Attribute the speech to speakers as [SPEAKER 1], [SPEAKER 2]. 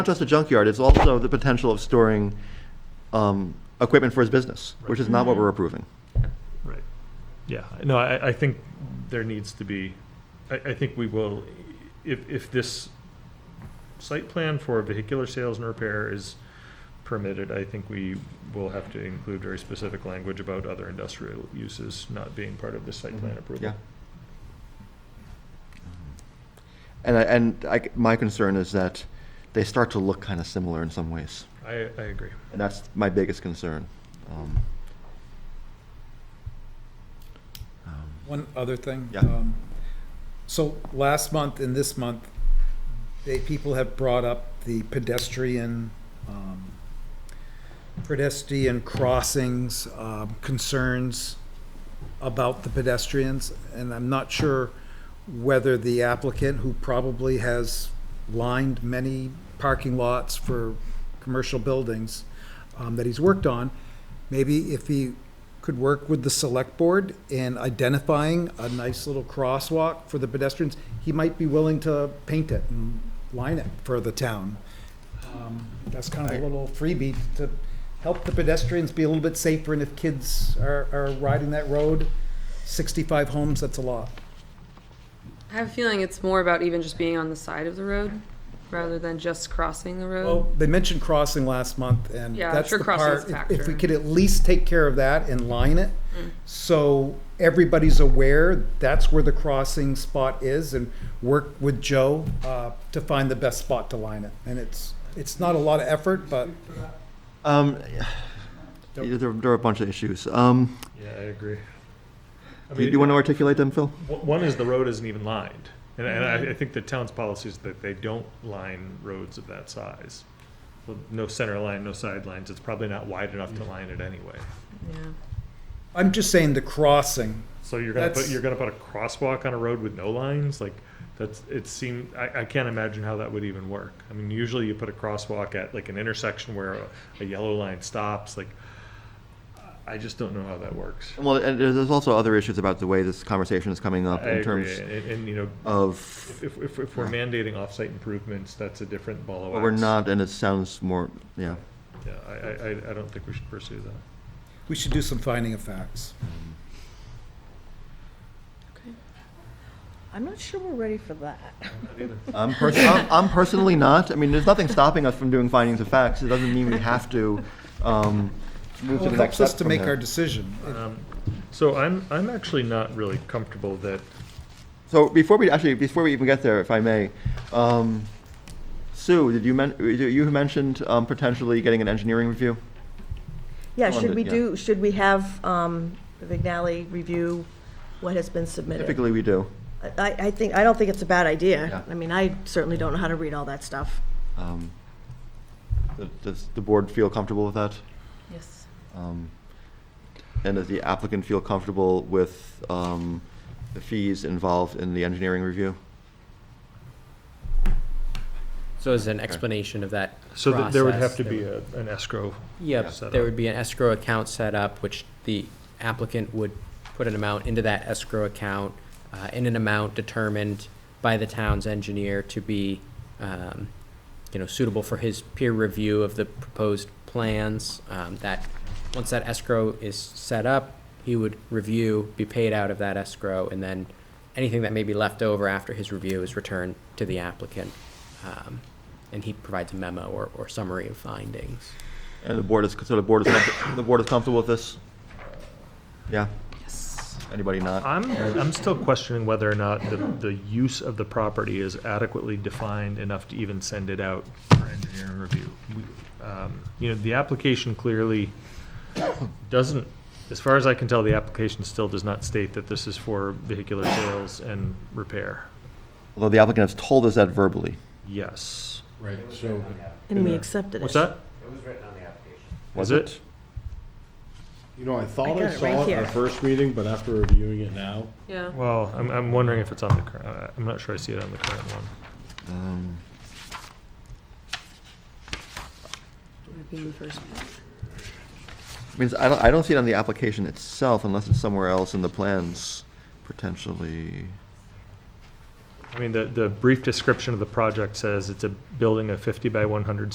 [SPEAKER 1] not just a junkyard, it's also the potential of storing um, equipment for his business, which is not what we're approving.
[SPEAKER 2] Right. Yeah, no, I, I think there needs to be, I, I think we will, if, if this site plan for vehicular sales and repair is permitted, I think we will have to include very specific language about other industrial uses not being part of the site plan approval.
[SPEAKER 1] Mm-hmm. Yeah. And I, and I, my concern is that they start to look kind of similar in some ways,
[SPEAKER 2] I, I agree.
[SPEAKER 1] and that's my biggest concern. Um, um,
[SPEAKER 3] One other thing.
[SPEAKER 1] Yeah.
[SPEAKER 3] um, So last month and this month, they, people have brought up the pedestrian, um, pedestrian crossings, um, concerns about the pedestrians. And I'm not sure whether the applicant, who probably has lined many parking lots for commercial buildings um, that he's worked on, maybe if he could work with the select board in identifying a nice little crosswalk for the pedestrians, he might be willing to paint it and line it for the town. Um, That's kind of a little freebie to help the pedestrians be a little bit safer, and if kids are, are riding that road, sixty-five homes, that's a lot.
[SPEAKER 4] I have a feeling it's more about even just being on the side of the road rather than just crossing the road.
[SPEAKER 3] Well, they mentioned crossing last month, and
[SPEAKER 4] Yeah,
[SPEAKER 3] that's
[SPEAKER 4] sure,
[SPEAKER 3] the
[SPEAKER 4] crossing
[SPEAKER 3] part,
[SPEAKER 4] is
[SPEAKER 3] if- if
[SPEAKER 4] a
[SPEAKER 3] we
[SPEAKER 4] factor. Mm.
[SPEAKER 3] could at least take care of that and line it, so everybody's aware, that's where the crossing spot is, and work with Joe uh, to find the best spot to line it. And it's, it's not a lot of effort, but
[SPEAKER 1] Um, there, there are a bunch of issues. Um,
[SPEAKER 2] Yeah, I agree. I
[SPEAKER 1] do you,
[SPEAKER 2] mean,
[SPEAKER 1] want to articulate them, Phil?
[SPEAKER 2] One one is the road isn't even lined, and, and I, I think the town's policy is that they don't line roads of that size. Well, No center line, no sidelines, it's probably not wide enough to line it anyway.
[SPEAKER 4] yeah.
[SPEAKER 3] I'm just saying the crossing,
[SPEAKER 2] So you're gonna put,
[SPEAKER 3] That's-
[SPEAKER 2] you're gonna put a crosswalk on a road with no lines, like, that's, it seemed, I, I can't imagine how that would even work. I mean, usually you put a crosswalk at like an intersection where a, a yellow line stops, like, I just don't know how that works.
[SPEAKER 1] Well, and there's there's also other issues about the way this conversation is coming up
[SPEAKER 2] I
[SPEAKER 1] in
[SPEAKER 2] agree,
[SPEAKER 1] terms
[SPEAKER 2] and, and, you know,
[SPEAKER 1] of
[SPEAKER 2] if, if, if we're mandating off-site improvements, that's a different ball of
[SPEAKER 1] But we're
[SPEAKER 2] wax.
[SPEAKER 1] not, and it sounds more, yeah.
[SPEAKER 2] Yeah, I, I, I- I don't think we should pursue that.
[SPEAKER 3] we should do some finding of facts.
[SPEAKER 4] Okay.
[SPEAKER 5] I'm not sure we're ready for that.
[SPEAKER 1] I'm, pers- I'm, I'm personally not. I mean, there's nothing stopping us from doing findings of facts. It doesn't mean we have to um, move
[SPEAKER 3] Well,
[SPEAKER 1] to
[SPEAKER 3] It
[SPEAKER 1] the next
[SPEAKER 3] helps
[SPEAKER 1] step.
[SPEAKER 3] us to
[SPEAKER 1] from
[SPEAKER 3] make
[SPEAKER 1] there.
[SPEAKER 3] our decision.
[SPEAKER 2] Um, So I'm, I'm actually not really comfortable that,
[SPEAKER 1] so before we actually, before we even get there, if I may, um, Sue, did you men- you you mentioned um, potentially getting an engineering review?
[SPEAKER 5] Yeah,
[SPEAKER 1] Well,
[SPEAKER 5] should we
[SPEAKER 1] yeah.
[SPEAKER 5] do, should we have um, the Vignali review what has been submitted?
[SPEAKER 1] Typically, we do.
[SPEAKER 5] I, I think, I don't think it's a bad idea.
[SPEAKER 1] Yeah.
[SPEAKER 5] I mean, I certainly don't know how to read all that stuff.
[SPEAKER 1] Um, th- does the board feel comfortable with that?
[SPEAKER 4] Yes.
[SPEAKER 1] Um, And does the applicant feel comfortable with um, the fees involved in the engineering review?
[SPEAKER 6] So as an explanation of that
[SPEAKER 2] so that there would have
[SPEAKER 6] process,
[SPEAKER 2] to be
[SPEAKER 6] would-
[SPEAKER 2] a, an escrow.
[SPEAKER 6] Yep,
[SPEAKER 2] set
[SPEAKER 6] there
[SPEAKER 2] up.
[SPEAKER 6] would be an escrow account set up, which the applicant would put an amount into that escrow account, uh, in an amount determined by the town's engineer to be, um, you know, suitable for his peer review of the proposed plans. Um, that, once that escrow is set up, he would review, be paid out of that escrow, and then anything that may be left over after his review is returned to the applicant. Um, and he provides a memo or, or summary of findings.
[SPEAKER 1] And the board is, so the board is, comfort- the board is comfortable with this? Yeah?
[SPEAKER 4] Yes.
[SPEAKER 1] Anybody not?
[SPEAKER 2] I'm, I'm still questioning whether or not the, the use of the property is adequately defined enough to even send it out for engineering review. We- um, You know, the application clearly doesn't, as far as I can tell, the application still does not state that this is for vehicular sales and repair.
[SPEAKER 1] Although the applicant has told us that verbally.
[SPEAKER 2] Yes.
[SPEAKER 7] Right, so,
[SPEAKER 5] And we accepted it.
[SPEAKER 2] What's that?
[SPEAKER 1] Was
[SPEAKER 2] Is it?
[SPEAKER 7] you know, I
[SPEAKER 5] I
[SPEAKER 7] thought
[SPEAKER 5] got
[SPEAKER 7] I
[SPEAKER 5] it
[SPEAKER 7] saw
[SPEAKER 5] right
[SPEAKER 7] it in
[SPEAKER 5] here.
[SPEAKER 7] the first meeting, but after reviewing it now,
[SPEAKER 4] Yeah.
[SPEAKER 2] Well, I'm, I'm wondering if it's on the current, uh, I'm not sure I see it on the current one.
[SPEAKER 1] Um, I mean, I don't, I don't see it on the application itself unless it's somewhere else in the plans, potentially.
[SPEAKER 2] I mean, the, the brief description of the project says it's a building of fifty by one hundred